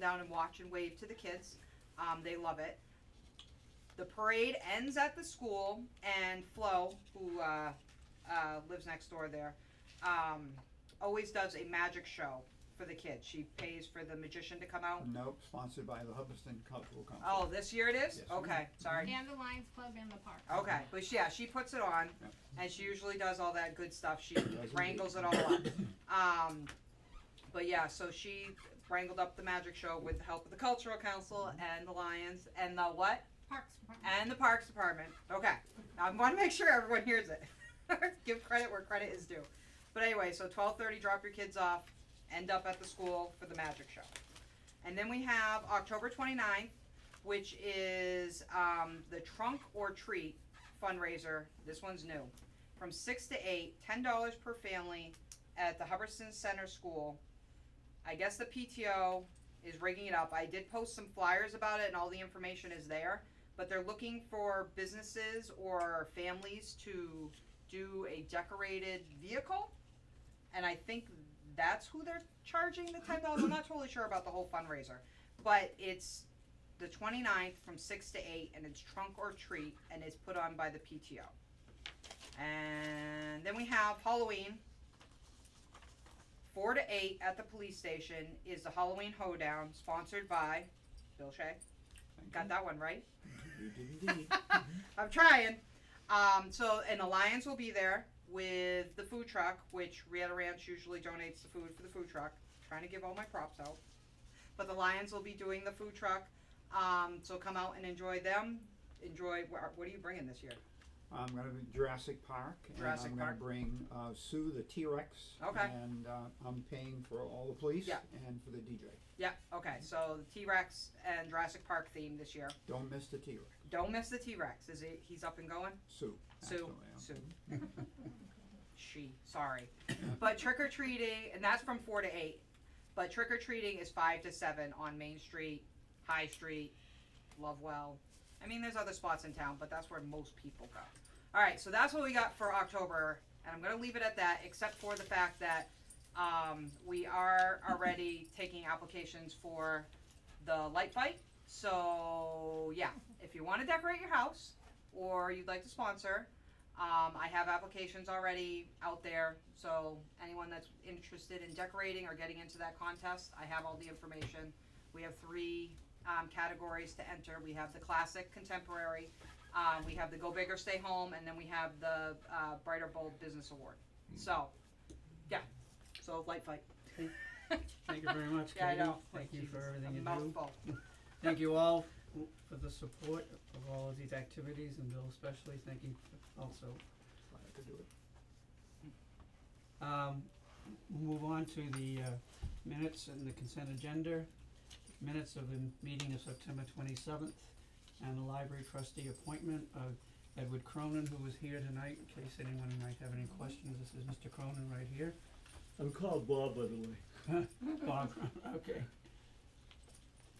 down and watch and wave to the kids. Um, they love it. The parade ends at the school, and Flo, who uh, uh, lives next door there, um, always does a magic show for the kids. She pays for the magician to come out. Nope, sponsored by the Hubbardston Cultural Council. Oh, this year it is? Yes, ma'am. Okay, sorry. And the Lions Club and the park. Okay, but she- yeah, she puts it on, Yep. and she usually does all that good stuff, she Does wrangles it all up. Um, but yeah, so she wrangled up the magic show with the help of the cultural council and the Lions and the what? Parks Department. And the Parks Department, okay, I wanna make sure everyone hears it. Give credit where credit is due. But anyway, so twelve thirty, drop your kids off, end up at the school for the magic show. And then we have October 29th, which is um, the trunk or treat fundraiser. This one's new. From six to eight, ten dollars per family at the Hubbardston Center School. I guess the PTO is rigging it up. I did post some flyers about it, and all the information is there. But they're looking for businesses or families to do a decorated vehicle, and I think that's who they're charging the ten dollars. I'm not totally sure about the whole fundraiser, but it's the 29th from six to eight, and it's trunk or treat, and it's put on by the PTO. And then we have Halloween. Four to eight at the police station is the Halloween hoedown, sponsored by Bill Shea. Mm-hmm. Got that one right. You did indeed. I'm trying. Um, so, and the Lions will be there with the food truck, which Rieta Ranch usually donates the food for the food truck. Trying to give all my props out. But the Lions will be doing the food truck. Um, so come out and enjoy them. Enjoy. wh- What are you bringing this year? I'm gonna be Jurassic Park, and Jurassic I'm gonna Park. bring, uh, Sue the T-Rex. Okay. And, uh, I'm paying for all the police Yeah. and for the DJ. Yeah. Okay. So the T Rex and Jurassic Park theme this year. Don't miss the T-Rex, Don't miss the T Rex. Is it? He's up and going. Sue, Sue, actually, Sue. um, She, sorry. But trick or treating, and that's from four to eight. But trick or treating is five to seven on Main Street, High Street, Lovewell. I mean, there's other spots in town, but that's where most people go. All right, so that's what we got for October, and I'm gonna leave it at that, except for the fact that, um, we are already taking applications for the light fight. So, yeah, if you wanna decorate your house, or you'd like to sponsor, um, I have applications already out there, so anyone that's interested in decorating or getting into that contest, I have all the information. We have three, um, categories to enter. We have the classic, contemporary, um, we have the Go Big or Stay Home, and then we have the, uh, Brighter Bold Business Award. Hmm. So, yeah, so light fight. Thank you very much, Yeah, I Katie. know. Thank you for Jesus, a everything you do. Mouthful. Thank you all w- for the support of all of these activities and Bill especially, thank you f- also. glad I could do it. Um, we'll move on to the uh, minutes and the consent agenda. Minutes of the meeting of September twenty-seventh and the library trustee appointment of Edward Cronin, who was here tonight, in case anyone might have any questions. This is Mr. Cronin right here. I'm called Bob, by the way. Bob, okay.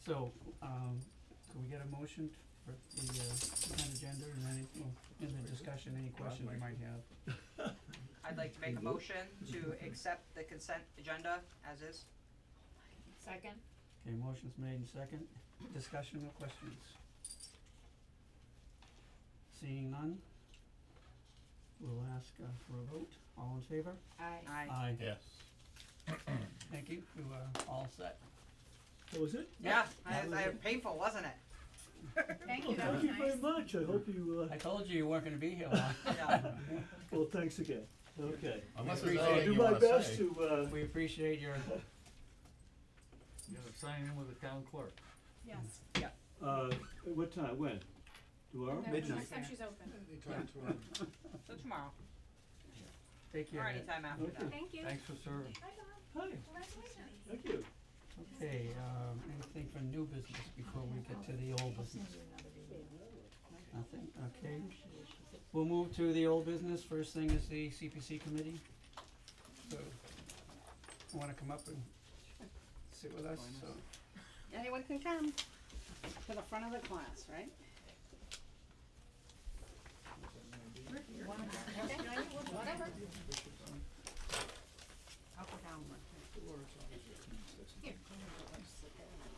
So, um, can we get a motion for the, uh, consent agenda and any, well, in the discussion, any questions we might have? I'd like to make a motion to accept the consent agenda as is. Second. Okay, motion's made and second, discussion or questions? Seeing none, we'll ask, uh, for a vote, all in favor? Aye. Aye. Aye. Yes. Thank you, you are all set. That was Oh, it? Yeah, I, That was I, it. painful, wasn't it? Thank Well, you, that was Thank you very nice. much, I hope you, I told you you weren't gonna be here long. Yeah. uh, well, thanks again, okay. Unless We there's appreciate I'll anything do you my wanna best say. to, uh, We appreciate your, You gotta sign in with the town clerk. Yes. uh, at what time, when? Tomorrow? No, midnight. Next time she's open. Anytime So tomorrow, take your. or anytime after that. Thank you. Thanks for serving. Bye, Bob. Hi, Congratulations. thank you. Okay, um, anything for new business before we get to the old business? Nothing, okay. We'll move to the old business, first thing is the CPC committee. So, you wanna come up and sit with us, so, Anyone can come to the front of the class, right? Whatever. Up or down one? Here.